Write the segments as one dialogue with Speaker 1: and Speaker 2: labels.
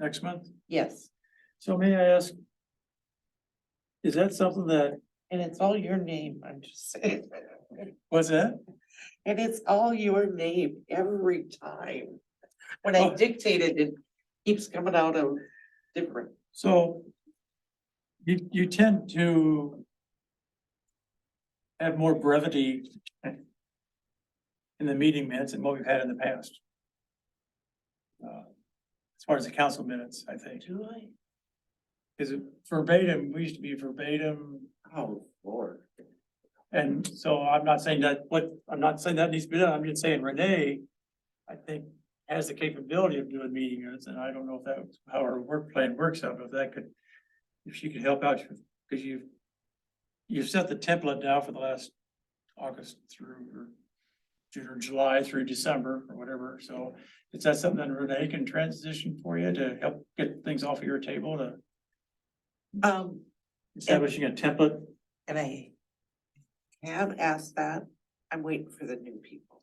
Speaker 1: next month?
Speaker 2: Yes,
Speaker 1: So may I ask? Is that something that,
Speaker 2: and it's all your name, I'm just saying.
Speaker 1: what's that?
Speaker 2: And it's all your name every time. When I
Speaker 1: Oh.
Speaker 2: dictated, it keeps coming out of different,
Speaker 1: So you, you tend to have more brevity in the meeting minutes than what we've had in the past. Uh, As far as the council minutes, I think,
Speaker 2: do I?
Speaker 1: is verbatim, we used to be verbatim.
Speaker 2: Oh, Lord.
Speaker 1: And so I'm not saying that, what, I'm not saying that needs to be done, I'm just saying Renee, I think, has the capability of doing meeting minutes, and I don't know if that's how her work plan works out, but if that could, if she could help out, because you've, you've set the template now for the last August through, or June or July through December, or whatever, so is that something that Renee can transition for you to help get things off of your table, to
Speaker 2: Um,
Speaker 1: establishing a template?
Speaker 2: and I have asked that, I'm waiting for the new people.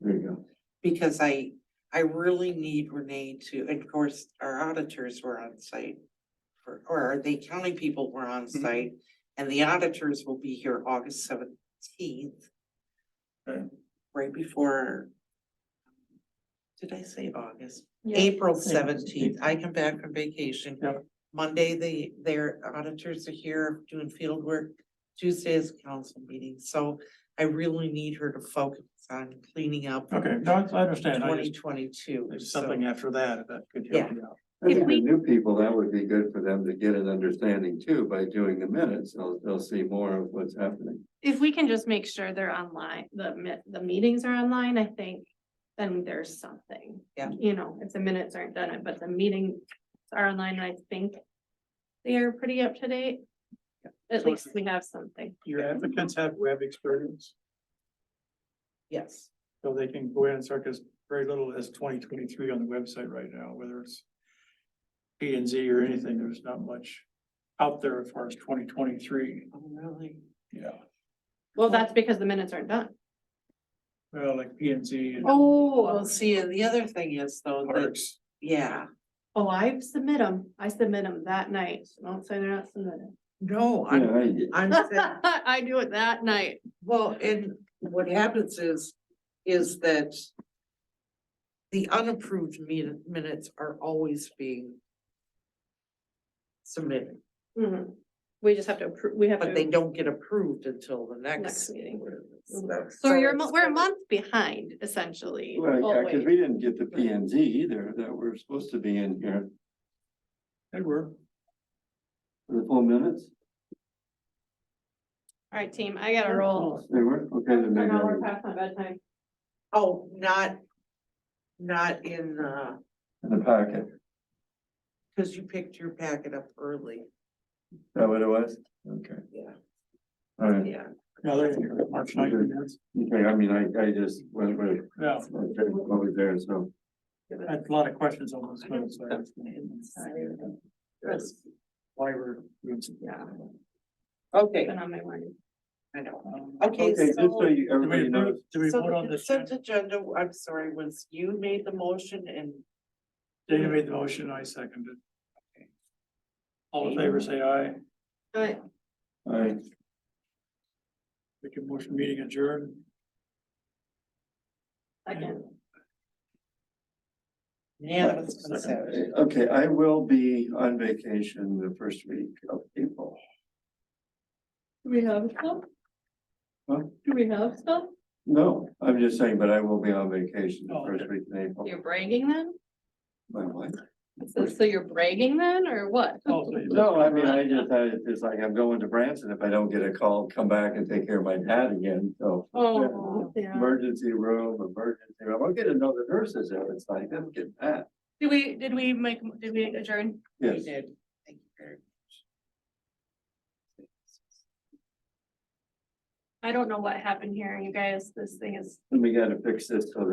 Speaker 1: There you go.
Speaker 2: because I, I really need Renee to, and of course, our auditors were on site. for- Or the accounting people were on
Speaker 1: Mhm.
Speaker 2: site, and the auditors will be here August seventeenth, right before. Did I say August? April seventeenth, I come back from vacation.
Speaker 1: Yep.
Speaker 2: Monday, the, their auditors are here doing field work, Tuesday is council meeting, so I really need her to focus on cleaning up
Speaker 1: Okay, no, I I understand, I just-
Speaker 2: twenty twenty-two.
Speaker 1: There's something after that, that could help you out.
Speaker 3: I
Speaker 2: If
Speaker 3: think
Speaker 2: we-
Speaker 3: the new people, that would be good for them to get an understanding too by doing the minutes. They'll, they'll see more of what's happening.
Speaker 4: If we can just make sure they're online, the mi- the meetings are online, I think, then there's something.
Speaker 2: Yeah.
Speaker 4: You know, if the minutes aren't done, but the meetings are online, I think they are pretty up to date. At
Speaker 1: So-
Speaker 4: least we have something.
Speaker 1: Your applicants have web experience,
Speaker 2: Yes,
Speaker 1: so they can go in and start, because very little is twenty twenty-three on the website right now, whether it's P and Z or anything, there's not much out there as far as twenty twenty-three.
Speaker 2: oh, really?
Speaker 1: Yeah.
Speaker 4: Well, that's because the minutes aren't done.
Speaker 1: Well, like P and Z and
Speaker 2: Well,
Speaker 4: Oh.
Speaker 2: see, and the other thing is though, that,
Speaker 1: parks,
Speaker 2: yeah,
Speaker 4: Oh, I submit them. I submit them that night. So Don't say they're not submitted.
Speaker 2: no,
Speaker 3: Yeah,
Speaker 2: I'm,
Speaker 3: I-
Speaker 2: I'm saying,
Speaker 4: I do it that night.
Speaker 2: well, and what happens is, is that the unapproved min- minutes are always being submitted,
Speaker 4: Mhm. We just have to approve, we have
Speaker 2: Mm-hmm. but they
Speaker 4: to,
Speaker 2: don't get approved until the
Speaker 4: Next
Speaker 2: next.
Speaker 4: meeting.
Speaker 2: So-
Speaker 4: so you're, a
Speaker 2: it's
Speaker 4: mo- we're a
Speaker 2: kinda-
Speaker 4: month behind essentially.
Speaker 3: Well, yeah, cause
Speaker 4: always.
Speaker 3: we didn't get the P and Z either that were supposed to be in here
Speaker 1: they were.
Speaker 3: for the full minutes.
Speaker 4: All right, team, I gotta roll.
Speaker 3: They were, okay, then maybe. I-
Speaker 4: past my bedtime.
Speaker 2: Oh, not, not in, uh,
Speaker 3: In the packet.
Speaker 2: cause you picked your packet up early,
Speaker 3: Is that what it was? Okay,
Speaker 2: yeah,
Speaker 3: all right.
Speaker 2: yeah.
Speaker 1: No, they're here, March 19th. minutes.
Speaker 3: Okay, I mean, I, I just went with
Speaker 1: Yeah,
Speaker 3: what was there, so.
Speaker 1: I had a lot of questions on those minutes. so I was
Speaker 2: Yes.
Speaker 1: That's Why we're.
Speaker 4: Yeah.
Speaker 2: Okay,
Speaker 4: Been on my mind.
Speaker 2: I know.
Speaker 1: Um,
Speaker 2: Okay,
Speaker 3: Okay, just so
Speaker 2: so.
Speaker 3: you,
Speaker 1: Do we
Speaker 3: everybody knows.
Speaker 1: approve, do we
Speaker 2: so
Speaker 1: vote
Speaker 2: the
Speaker 1: on this?
Speaker 2: Consent agenda, I'm sorry, was you made the motion and
Speaker 1: Dana made the motion, I seconded. All in favor, say aye.
Speaker 4: All right,
Speaker 3: All right,
Speaker 1: We can motion meeting adjourned.
Speaker 4: second.
Speaker 2: unanimous
Speaker 1: Second.
Speaker 2: consent.
Speaker 3: okay, I will be on vacation the first week of April.
Speaker 4: Do we have stuff?
Speaker 3: Huh?
Speaker 4: Do we have stuff?
Speaker 3: No, I'm just saying, but I will be on vacation the
Speaker 1: Oh,
Speaker 3: first
Speaker 1: okay.
Speaker 3: week in April.
Speaker 4: You're bragging then?
Speaker 3: My wife.
Speaker 4: So, so you're bragging then, or what?
Speaker 1: Oh, so you-
Speaker 3: No, I mean, I just, I, it's like I'm going to Branson. If I don't get a call, come back and take care of my dad again, so.
Speaker 4: Oh, yeah.
Speaker 3: Emergency room, emergency room. I'll get another nurses there. It's like, I'm getting that.
Speaker 4: Did we, did we make, did we adjourn?
Speaker 2: We
Speaker 3: Yes.
Speaker 2: did. Thank you very much.
Speaker 4: I don't know what happened here, you guys. This thing is
Speaker 3: And we gotta fix this so that.